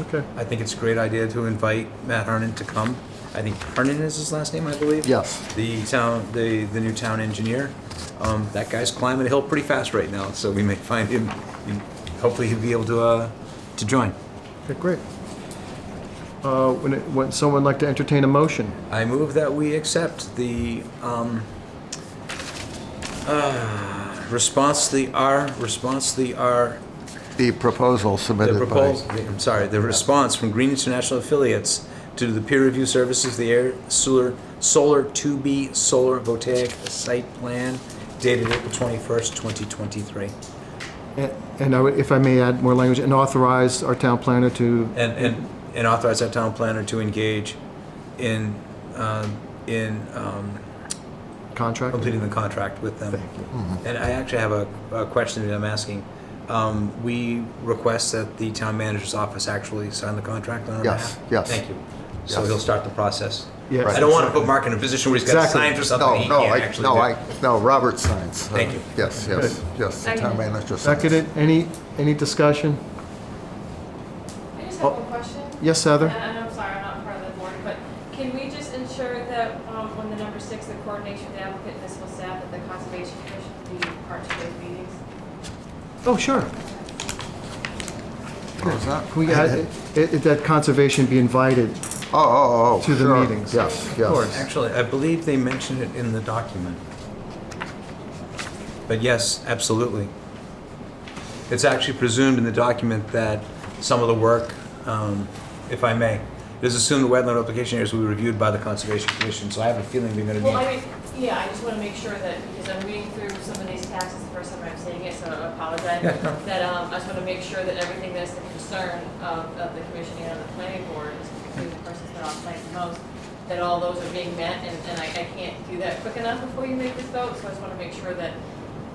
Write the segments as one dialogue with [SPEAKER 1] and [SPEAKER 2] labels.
[SPEAKER 1] Okay.
[SPEAKER 2] I think it's a great idea to invite Matt Harnon to come. I think Harnon is his last name, I believe.
[SPEAKER 1] Yes.
[SPEAKER 2] The town, the, the new town engineer. Um, that guy's climbing a hill pretty fast right now, so we may find him, and hopefully he'll be able to, uh, to join.
[SPEAKER 1] Okay, great. Uh, When it- when someone like to entertain a motion?
[SPEAKER 2] I move that we accept the, um, uh, response to the R, response to the R,
[SPEAKER 3] The proposal
[SPEAKER 2] the
[SPEAKER 3] submitted by,
[SPEAKER 2] proposal, I'm sorry, the response from Green International Affiliates to the peer review services, the air solar, solar 2B solar voltaic site plan dated April 21st, 2023.
[SPEAKER 1] A- And I would- if I may add more language, and authorize our town planner to,
[SPEAKER 2] And, and, and authorize our town planner to engage in, um, in, um,
[SPEAKER 1] contract?
[SPEAKER 2] completing the contract with them.
[SPEAKER 1] Thank you.
[SPEAKER 3] Mm-hmm.
[SPEAKER 2] And I actually have a, a question that I'm asking. Um, we request that the town manager's office actually sign the contract on our
[SPEAKER 3] Yes,
[SPEAKER 2] behalf.
[SPEAKER 3] yes.
[SPEAKER 2] Thank you. So
[SPEAKER 3] Yes.
[SPEAKER 2] he'll start the process.
[SPEAKER 1] Yes.
[SPEAKER 2] I don't want to put Mark in a position where he's got to
[SPEAKER 1] Exactly.
[SPEAKER 2] sign for something
[SPEAKER 3] no,
[SPEAKER 2] he
[SPEAKER 3] no,
[SPEAKER 2] can't
[SPEAKER 3] I,
[SPEAKER 2] actually do.
[SPEAKER 3] no, I, no, Robert signs. Uh,
[SPEAKER 2] Thank you.
[SPEAKER 3] Yes, yes, yes, the town
[SPEAKER 4] Seconded.
[SPEAKER 3] manager signs.
[SPEAKER 1] Seconded, any, any discussion?
[SPEAKER 4] I just
[SPEAKER 1] Oh.
[SPEAKER 4] have one question.
[SPEAKER 1] Yes, Heather?
[SPEAKER 4] And and I'm sorry, I'm not part of the board, but can we just ensure that um, on the number six, the coordination of the applicant and municipal staff at the conservation commission be part of those meetings?
[SPEAKER 1] Oh, sure.
[SPEAKER 3] What was Oh, that?
[SPEAKER 1] Can we add, i- i- that conservation be invited?
[SPEAKER 3] Oh, oh, oh,
[SPEAKER 1] To the
[SPEAKER 3] sure.
[SPEAKER 1] meetings.
[SPEAKER 3] Yes,
[SPEAKER 1] Of course.
[SPEAKER 3] yes.
[SPEAKER 2] Actually, I believe they mentioned it in the document. But yes, absolutely. It's actually presumed in the document that some of the work, um, if I may, it is assumed the wetland application areas will be reviewed by the Conservation Commission, so I have a feeling we're gonna
[SPEAKER 4] Well, I
[SPEAKER 2] need.
[SPEAKER 4] mean, yeah, I just want to make sure that, because I'm reading through some of these taxes, the first time I'm seeing it, so I apologize.
[SPEAKER 2] Yeah, no.
[SPEAKER 4] That um, I just want to make sure that everything that's the concern of, of the commission and of the planning board, is particularly the person that's on site the most, that all those are being met, and, and I, I can't do that quick enough before you make this vote, so I just want to make sure that,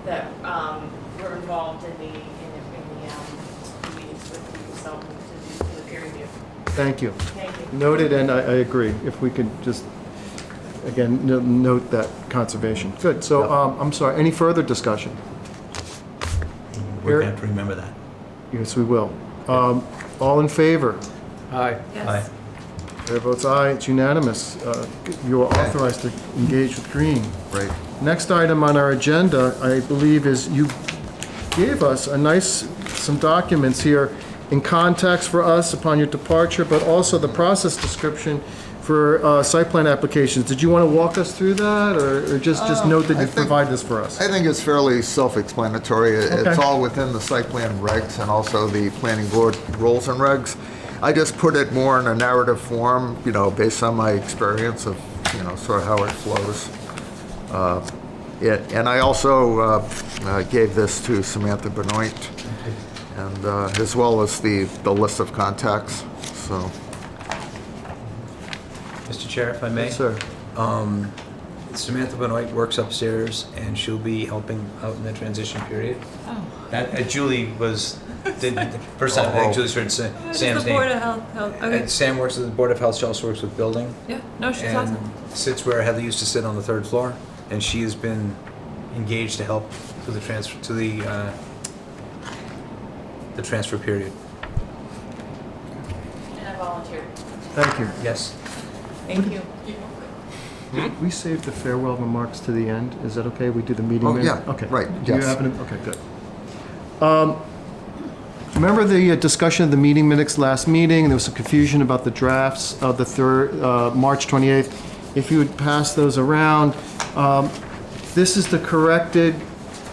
[SPEAKER 4] that um, we're involved in the, in the, in the um, meetings with the consultant to do, to the peer review.
[SPEAKER 1] Thank you.
[SPEAKER 4] Thank you.
[SPEAKER 1] Noted, and I, I agree, if we could just, again, no- note that conservation. Good, so, um, I'm sorry, any further discussion?
[SPEAKER 2] We're gonna have to remember that.
[SPEAKER 1] Yes, we will. Um, All in favor?
[SPEAKER 2] Aye.
[SPEAKER 4] Yes.
[SPEAKER 1] Chair votes aye, it's unanimous. Uh, You are authorized to engage with Green.
[SPEAKER 3] Great.
[SPEAKER 1] Next item on our agenda, I believe, is you gave us a nice, some documents here in context for us upon your departure, but also the process description for uh, site plan applications. Did you want to walk us through that, or or just, just note that
[SPEAKER 3] Uh, I
[SPEAKER 1] you
[SPEAKER 3] think-
[SPEAKER 1] provide this for us?
[SPEAKER 3] I think it's fairly self-explanatory. It- It's
[SPEAKER 1] Okay.
[SPEAKER 3] all within the site plan regs and also the planning board rules and regs. I just put it more in a narrative form, you know, based on my experience of, you know, sort of how it flows. Uh, it- And I also uh, uh, gave this to Samantha Benoit, and uh, as well as the, the list of contacts, so.
[SPEAKER 2] Mr. Chair, if I may?
[SPEAKER 1] Yes, Sir,
[SPEAKER 2] Um, Samantha Benoit works upstairs, and she'll be helping out in the transition period. Oh. That, uh, Julie was, did, the first time I think Julie started Sa-
[SPEAKER 5] Oh, just
[SPEAKER 2] Sam's
[SPEAKER 5] the
[SPEAKER 2] name.
[SPEAKER 5] Board of Health, Health- okay,
[SPEAKER 2] And Sam works at the Board of Health, she also works with building.
[SPEAKER 5] yeah, no, she's
[SPEAKER 2] and
[SPEAKER 5] awesome.
[SPEAKER 2] sits where Heather used to sit on the third floor, and she has been engaged to help to the transfer to the uh, the transfer period.
[SPEAKER 4] And I volunteered.
[SPEAKER 1] thank you.
[SPEAKER 2] Yes.
[SPEAKER 4] Thank you.
[SPEAKER 1] We saved the farewell remarks to the end. Is that okay? We do the meeting
[SPEAKER 3] Oh,
[SPEAKER 1] minutes?
[SPEAKER 3] yeah,
[SPEAKER 1] Okay.
[SPEAKER 3] right,
[SPEAKER 1] Do you
[SPEAKER 3] yes.
[SPEAKER 1] have any, okay, good. Um, Remember the uh, discussion of the meeting minutes last meeting? There was some confusion about the drafts of the third, uh, March 28th. If you would pass those around, um, this is the corrected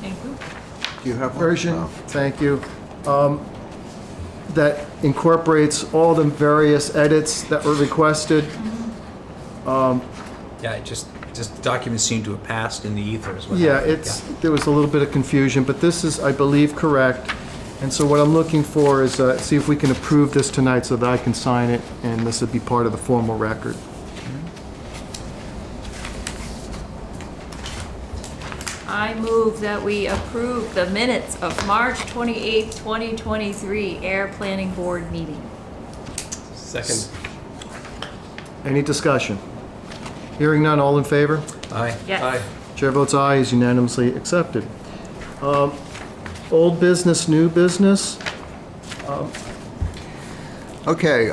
[SPEAKER 5] Thank you.
[SPEAKER 3] Do you have one?
[SPEAKER 1] version,
[SPEAKER 3] No.
[SPEAKER 1] thank you, um, that incorporates all the various edits that were requested.
[SPEAKER 2] Yeah. It just just documents seem to have passed in the ether as well.
[SPEAKER 1] Yeah, it's, there was a little bit of confusion, but this is, I believe, correct. And so what I'm looking for is, uh, see if we can approve this tonight so that I can sign it, and this would be part of the formal record.
[SPEAKER 5] I move that we approve the minutes of March 28, 2023 Air Planning Board meeting.
[SPEAKER 6] Second.
[SPEAKER 1] Any discussion? Hearing none, all in favor?
[SPEAKER 2] Aye.
[SPEAKER 5] Yes.
[SPEAKER 1] Chair votes aye, is unanimously accepted. Um, Old business, new business? Um,
[SPEAKER 3] Okay,